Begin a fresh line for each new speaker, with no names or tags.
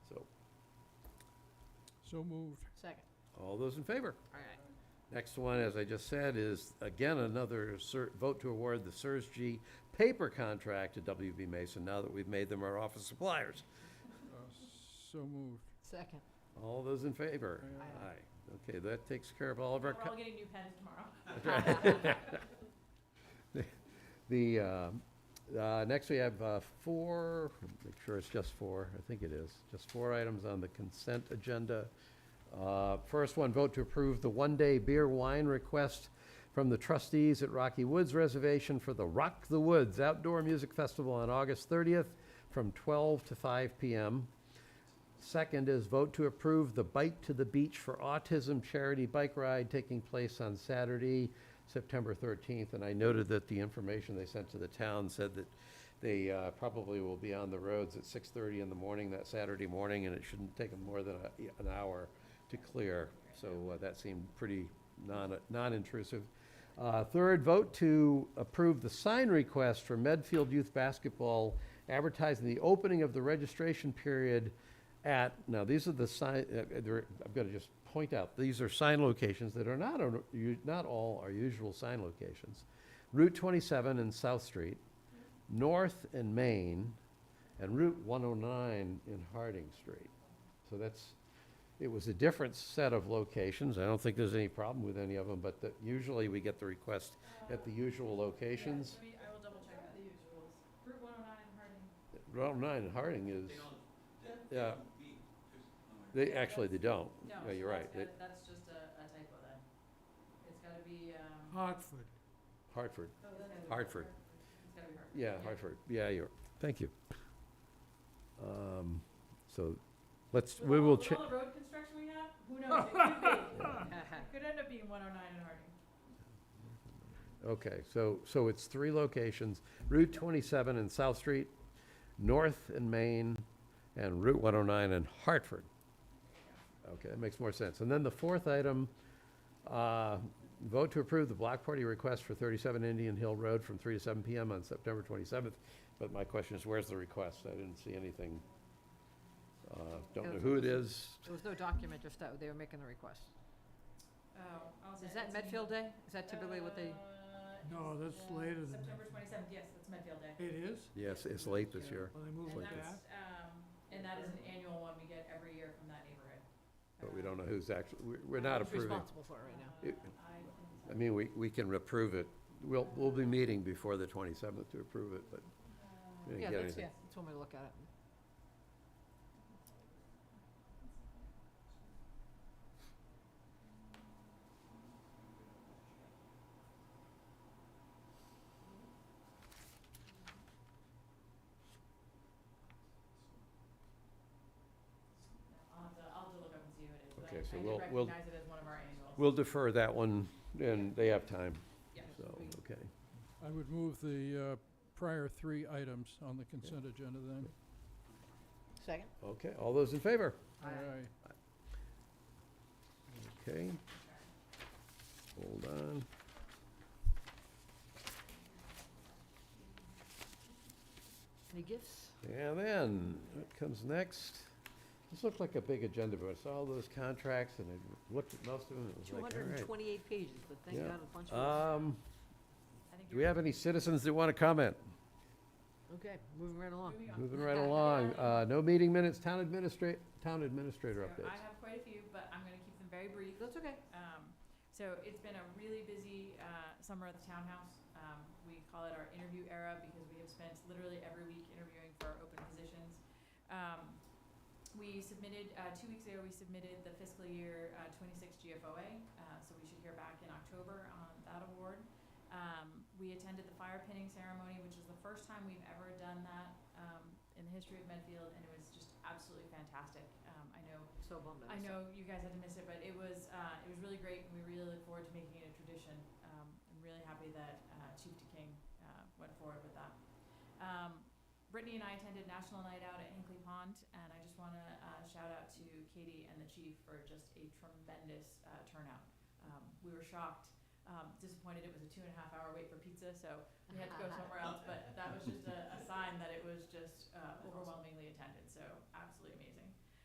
So moved.
Second.
All those in favor?
All right.
Next one, as I just said, is again another cer- vote to award the Surge paper contract to WB Mason now that we've made them our office suppliers.
Uh, So moved. Uh,
Second.
All those in favor?
Aye.
Aye. Okay, that takes care of all of our.
We're all getting new pens tomorrow.
The, uh, uh, next we have uh, four, make sure it's just four, I think it is, just four items on the consent agenda. Uh, First one, vote to approve the one-day beer wine request from the trustees at Rocky Woods Reservation for the Rock the Woods Outdoor Music Festival on August 30th from 12 to 5 p.m. Second is vote to approve the Bike to the Beach for Autism charity bike ride taking place on Saturday, September 13th. And I noted that the information they sent to the town said that they uh, probably will be on the roads at 6:30 in the morning that Saturday morning, and it shouldn't take them more than a- an hour to clear. So uh, that seemed pretty non- non-intrusive. Uh, Third, vote to approve the sign request for Medfield Youth Basketball advertising the opening of the registration period at, now, these are the sign, uh, uh, there- I've got to just point out, these are sign locations that are not, our- u- not all our usual sign locations. Route 27 and South Street, North and Main, and Route 109 in Harding Street. So that's, it was a different set of locations. I don't think there's any problem with any of them, but the- usually we get the request at the usual locations.
Yeah, let me- I will double check that. The usuals. Route one oh nine Harding.
Route 109 in Harding is, yeah. They, actually, they don't.
No,
Yeah,
so
you're right.
that's
They-
gotta- That's just a a typo then. It's gotta be, um.
Hartford.
Hartford.
oh, that's gotta be
Hartford.
It's gotta be Hartford.
Yeah, Hartford, yeah, you're, thank you. Um, So, let's,
With
we
all-
will
with
check,
all the road construction we have, who knows? It could be. It could end up being one oh nine in Harding.
okay, so, so it's three locations, Route 27 and South Street, North and Main, and Route 109 in Hartford. Okay, that makes more sense. And then the fourth item, uh, vote to approve the block party request for 37 Indian Hill Road from 3 to 7 PM on September 27th. But my question is, where's the request? I didn't see anything. Uh, Don't know who it is,
There was no document, just that they were making the request.
Oh, I'll send
Is
it to
that
you.
Medfield Day? Is that typically what they,
Uh,
No,
it's,
that's
uh,
later than
September twenty-seventh, yes, that's Medfield Day.
It is?
yes, it's late this year.
Well, they moved
And
it
that's,
back.
um, and that is an annual one we get every year from that neighborhood.
But we don't know who's actually, we're not
who's
approving.
responsible for it right now?
It-
Uh, I can-
I mean, we, we can approve it. We'll, we'll be meeting before the 27th to approve it, but
Uh,
we didn't
Yeah,
get
that's,
anything.
yeah, that's one way to look at it.
I'll have to, I'll have to look up and see who it is, but
Okay, so
I- I
we'll-
do
we'll-
recognize it as one of our annuals.
We'll defer that one, and they have time,
Yeah.
so, okay.
I would move the uh, prior three items on the consent agenda then.
Second?
Okay, all those in favor?
Aye.
Okay. Hold on.
Any gifts?
And then, what comes next? This looked like a big agenda, but I saw all those contracts, and I looked at most of them, and it was
Two
like, all
hundred
right.
and twenty-eight pages, but thank
Yeah.
God a bunch of
Um,
I think
do we have any citizens that want to comment?
them. Okay, moving right along.
Moving on.
Moving right along, uh, no meeting minutes, town administrat, town administrator
So I
updates.
have quite a few, but I'm gonna keep them very brief.
That's okay.
Um, so it's been a really busy, uh, summer at the townhouse. Um, we call it our interview era because we have spent literally every week interviewing for our open positions. Um, we submitted, uh, two weeks ago, we submitted the fiscal year, uh, twenty-six GFOA, uh, so we should hear back in October on that award. Um, we attended the fire pinning ceremony, which is the first time we've ever done that, um, in the history of Medfield, and it was just absolutely fantastic. Um, I know
So bummed
I
I missed it.
know you guys had to miss it, but it was, uh, it was really great, and we really look forward to making it a tradition. Um, I'm really happy that, uh, Chief DeKing, uh, went forward with that. Um, Brittany and I attended National Night Out at Hinkley Pond, and I just wanna, uh, shout out to Katie and the chief for just a tremendous, uh, turnout. Um, we were shocked, um, disappointed it was a two and a half hour wait for pizza, so we had to go somewhere else, but that was just a, a sign that it was just, uh, overwhelmingly attended, so absolutely amazing.